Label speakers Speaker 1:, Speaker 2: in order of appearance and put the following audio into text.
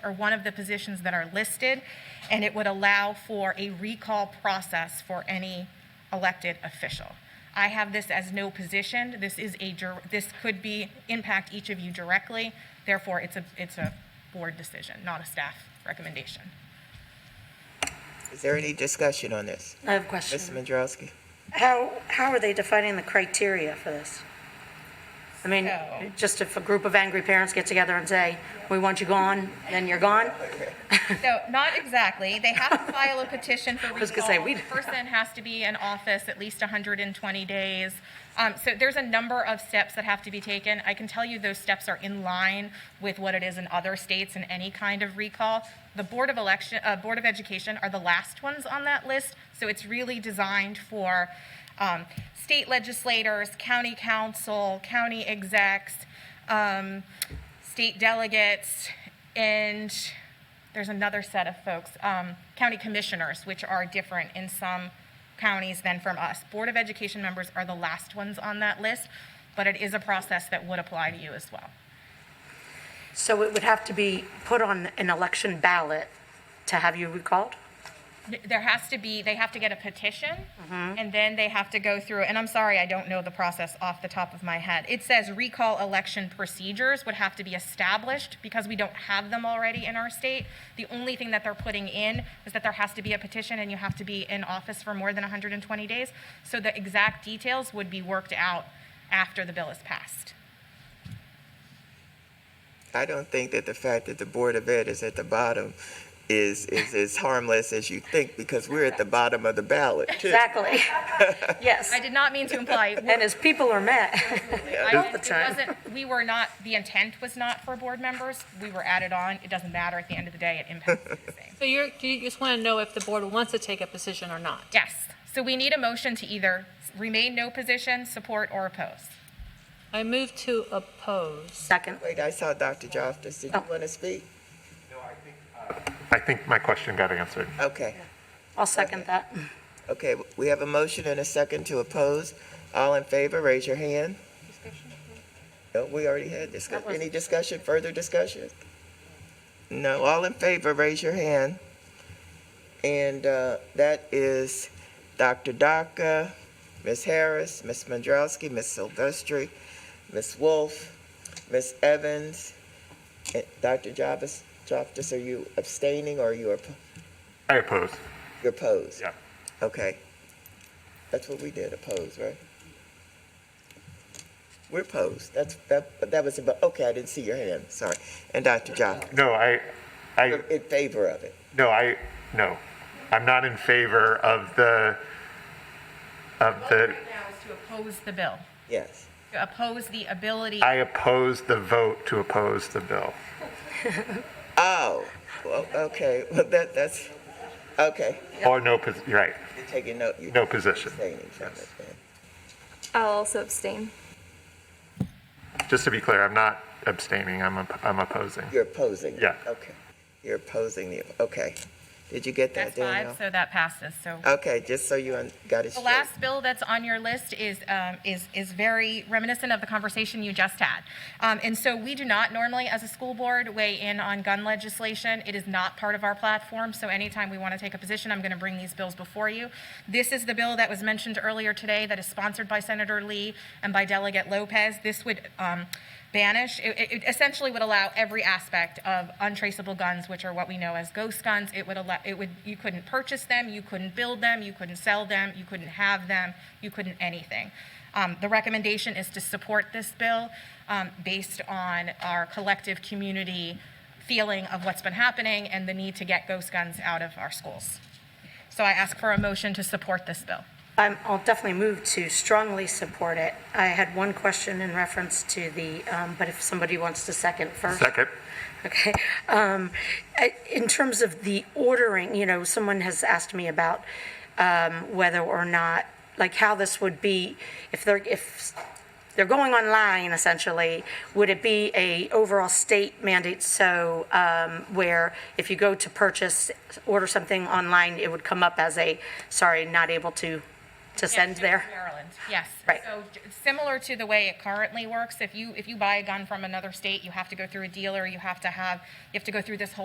Speaker 1: or one of the positions that are listed, and it would allow for a recall process for any elected official. I have this as no position. This is a, dir- this could be, impact each of you directly. Therefore, it's a, it's a board decision, not a staff recommendation.
Speaker 2: Is there any discussion on this?
Speaker 3: I have a
Speaker 2: Mr.
Speaker 3: question.
Speaker 2: Mandrowski?
Speaker 3: How, how are they defining the criteria for this? I mean,
Speaker 1: So-
Speaker 3: just if a group of angry parents get together and say, we want you gone, then you're gone?
Speaker 1: So, not exactly. They have to file a petition for
Speaker 3: was gonna say,
Speaker 1: recall.
Speaker 3: we-
Speaker 1: The person has to be in office at least 120 days. Um, So there's a number of steps that have to be taken. I can tell you those steps are in line with what it is in other states in any kind of recall. The Board of Election, uh, Board of Education are the last ones on that list, so it's really designed for um, state legislators, county council, county execs, um, state delegates, and there's another set of folks, um, county commissioners, which are different in some counties than from us. Board of Education members are the last ones on that list, but it is a process that would apply to you as well.
Speaker 3: So it would have to be put on an election ballot to have you recalled?
Speaker 1: There has to be, they have to get a petition, and then they have to go through, and I'm sorry, I don't know the process off the top of my head. It says recall election procedures would have to be established because we don't have them already in our state. The only thing that they're putting in is that there has to be a petition and you have to be in office for more than 120 days. So the exact details would be worked out after the bill is passed.
Speaker 2: I don't think that the fact that the Board of Ed is at the bottom is, is as harmless as you think, because we're at the bottom of the ballot, too.
Speaker 3: Exactly. Yes.
Speaker 1: I did not mean to imply.
Speaker 3: And as people are met
Speaker 1: I-
Speaker 3: all the
Speaker 1: it
Speaker 3: time.
Speaker 1: wasn't- We were not, the intent was not for board members. We were added on. It doesn't matter. At the end of the day, it impacts everything.
Speaker 4: So you're, you just want to know if the board wants to take a position or not?
Speaker 1: Yes. So we need a motion to either remain no position, support, or oppose.
Speaker 4: I move to oppose.
Speaker 3: Second.
Speaker 2: Wait, I saw Dr. Joftis. Did you want to speak?
Speaker 5: I think my question got answered.
Speaker 2: Okay,
Speaker 3: I'll second that.
Speaker 2: okay. We have a motion and a second to oppose. All in favor, raise your hand. No, we already had discuss, any discussion, further discussion? No, all in favor, raise your hand. And uh, that is Dr. Daka, Ms. Harris, Ms. Mandrowski, Ms. Silvestri, Ms. Wolf, Ms. Evans, and Dr. Jarvis, Jarvis, are you abstaining or you are,
Speaker 5: I oppose.
Speaker 2: you're opposed?
Speaker 5: Yeah.
Speaker 2: Okay. That's what we did, oppose, right? We're opposed, that's, that, that was about, okay, I didn't see your hand, sorry. And Dr. Jarvis,
Speaker 5: No, I, I,
Speaker 2: you're in favor of it.
Speaker 5: no, I, no. I'm not in favor of the, of the,
Speaker 1: now is to oppose the bill,
Speaker 2: Yes.
Speaker 1: to oppose the ability.
Speaker 5: I oppose the vote to oppose the bill.
Speaker 2: Oh, well, okay, well, that, that's, okay.
Speaker 5: Or no, pos- you're right,
Speaker 2: You're taking note. You're
Speaker 5: No position.
Speaker 2: abstaining from it then.
Speaker 6: I'll also abstain.
Speaker 5: just to be clear, I'm not abstaining, I'm, op- I'm opposing.
Speaker 2: You're opposing.
Speaker 5: Yeah.
Speaker 2: Okay. You're opposing the, okay. Did you get that,
Speaker 1: That's five,
Speaker 2: Danielle?
Speaker 1: so that passes, so.
Speaker 2: Okay, just so you un- got it
Speaker 1: The
Speaker 2: straight.
Speaker 1: last bill that's on your list is, um, is, is very reminiscent of the conversation you just had. Um, and so we do not normally, as a school board, weigh in on gun legislation. It is not part of our platform, so anytime we want to take a position, I'm going to bring these bills before you. This is the bill that was mentioned earlier today that is sponsored by Senator Lee and by Delegate Lopez. This would, um, banish, it, it- it essentially would allow every aspect of untraceable guns, which are what we know as ghost guns. It would allow, it would, you couldn't purchase them, you couldn't build them, you couldn't sell them, you couldn't have them, you couldn't anything. Um, the recommendation is to support this bill um, based on our collective community feeling of what's been happening and the need to get ghost guns out of our schools. So I ask for a motion to support this bill.
Speaker 3: I'm, I'll definitely move to strongly support it. I had one question in reference to the, um, but if somebody wants to second first.
Speaker 5: Second,
Speaker 3: Okay. Um, I- In terms of the ordering, you know, someone has asked me about um, whether or not, like how this would be, if they're, if they're going online essentially, would it be a overall state mandate? So um, where if you go to purchase, order something online, it would come up as a, sorry, not able to, to send
Speaker 1: Yes,
Speaker 3: there?
Speaker 1: Maryland, yes.
Speaker 3: Right.
Speaker 1: So j- similar to the way it currently works, if you, if you buy a gun from another state, you have to go through a dealer, you have to have, you have to go through this whole